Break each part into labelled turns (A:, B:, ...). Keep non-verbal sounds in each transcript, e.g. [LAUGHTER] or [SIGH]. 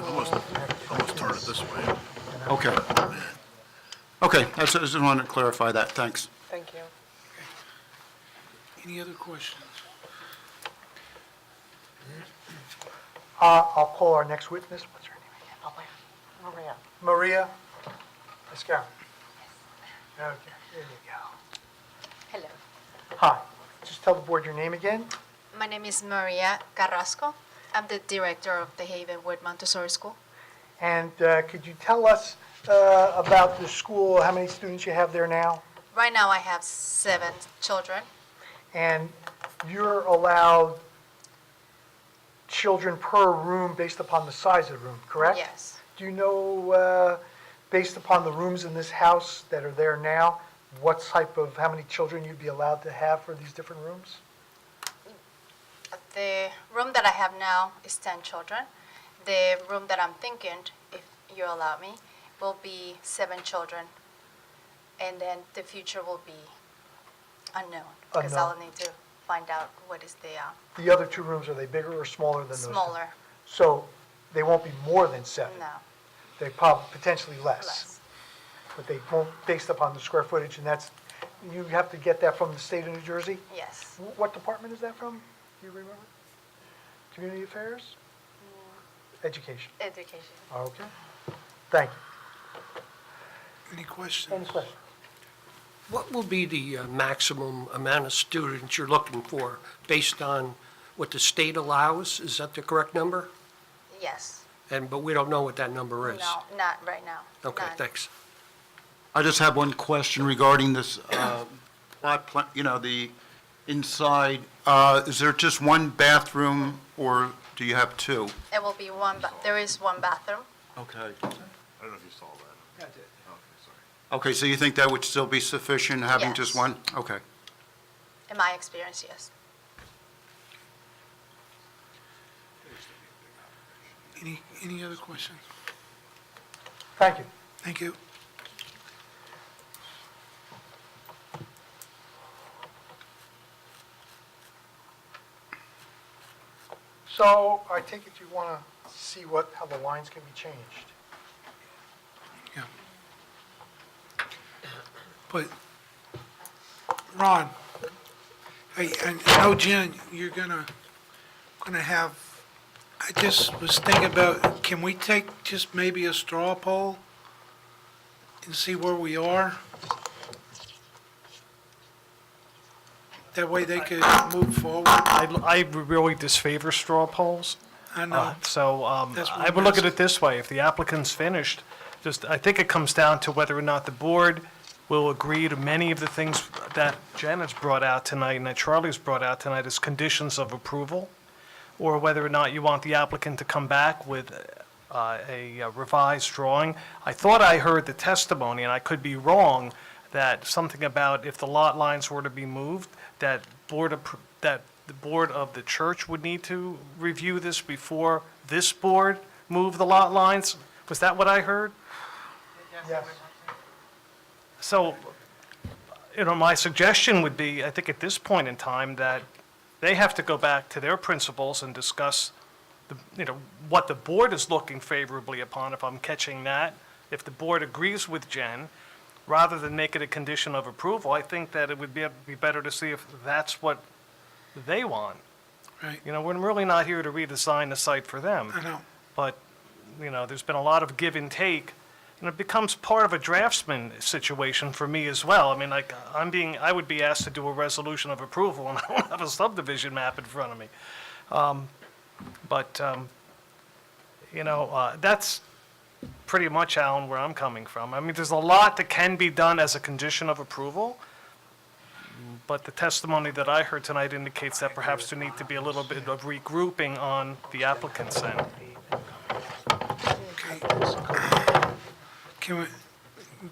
A: Start it this way.
B: Okay. Okay, I just- I just wanted to clarify that, thanks.
C: Thank you.
A: Any other questions?
D: Uh, I'll pull our next witness, what's her name again?
C: Oh, wait. Maria.
D: Maria Mascaro. Okay, there you
E: Hello.
D: go. Hi, just tell the board your name again.
E: My name is Maria Carrasco. I'm the director of the Havenwood Montessori School.
D: And uh, could you tell us uh, about the school, how many students you have there now?
E: Right now, I have seven children.
D: And you're allowed children per room based upon the size of the room, correct?
E: Yes.
D: Do you know, uh, based upon the rooms in this house that are there now, what type of, how many children you'd be allowed to have for these different rooms?
E: The room that I have now is 10 children. The room that I'm thinking, if you allow me, will be seven children. And then the future will be unknown because I'll
D: Unknown.
E: need to find out what is the uh,
D: The other two rooms, are they bigger or smaller than those? two?
E: smaller
D: So they won't be more than seven?
E: now.
D: They probably, potentially
E: Less.
D: But they won't, based upon the square footage, and that's, you have to get that from the state of New Jersey?
E: Yes.
D: Wh- What department is that from? Do you remember? Community Affairs? Education.
E: Education.
D: Okay. Thank you.
A: Any questions?
D: Any questions?
F: What will be the uh, maximum amount of students you're looking for based on what the state allows? Is that the correct number?
E: Yes.
F: And, but we don't know what that number is.
E: No, not right now.
F: Okay,
E: None.
F: thanks.
B: I just have one question regarding this, uh, plot plan, you know, the inside, uh, is there just one bathroom, or do you have two?
E: It will be one, but there is one bathroom.
B: Okay.
A: I don't know if you saw that.
B: Okay, so you think that would still be sufficient, having just
E: Yes.
B: one? Okay.
E: In my experience, yes.
A: Any, any other questions?
D: Thank you.
A: Thank you.
D: So I take it you want to see what, how the lines can be changed.
A: Yeah. But, Ron, I, I know, Jen, you're gonna, gonna have, I just was thinking about, can we take just maybe a straw poll and see where we are? That way they could move forward.
G: I, I really disfavor straw polls.
A: I
G: Uh,
A: know,
G: So um,
A: That's what
G: I would look at
A: it is.
G: it this way, if the applicant's finished, just, I think it comes down to whether or not the board will agree to many of the things that Janet's brought out tonight and that Charlie's brought out tonight as conditions of approval, or whether or not you want the applicant to come back with uh, a revised drawing. I thought I heard the testimony, and I could be wrong, that something about if the lot lines were to be moved, that board, appro- that the board of the church would need to review this before this board moved the lot lines? Was that what I heard?
D: Yes.
G: So, you know, my suggestion would be, I think at this point in time, that they have to go back to their principals and discuss, the- you know, what the board is looking favorably upon, if I'm catching that. If the board agrees with Jen, rather than make it a condition of approval, I think that it would be, be better to see if that's what they want.
A: right,
G: You know, we're really not here to redesign the site for them
A: I know.
G: but, you know, there's been a lot of give and take, and it becomes part of a draftsman situation for me as well. I mean, like, I'm being, I would be asked to do a resolution of approval, [LAUGHS] and I don't have a subdivision map in front of me. Um, But, um, you know, uh, that's pretty much, Alan, where I'm coming from. I mean, there's a lot that can be done as a condition of approval, but the testimony that I heard tonight indicates that perhaps there need to be a little bit of regrouping on the applicant's end.
A: Okay. Can we,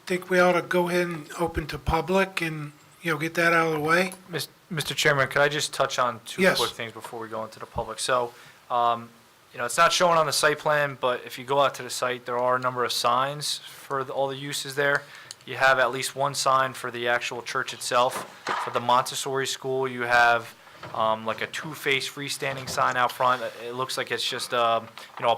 A: think we ought to go ahead and open to public and, you know, get that out of the way?
H: Mis- Mr. Chairman, could I just touch on two
A: Yes.
H: quick things before we go into the public? So, um, you know, it's not shown on the site plan, but if you go out to the site, there are a number of signs for the- all the uses there. You have at least one sign for the actual church itself. For the Montessori school, you have um, like a two-faced freestanding sign out front. It- It looks like it's just, um, you know, a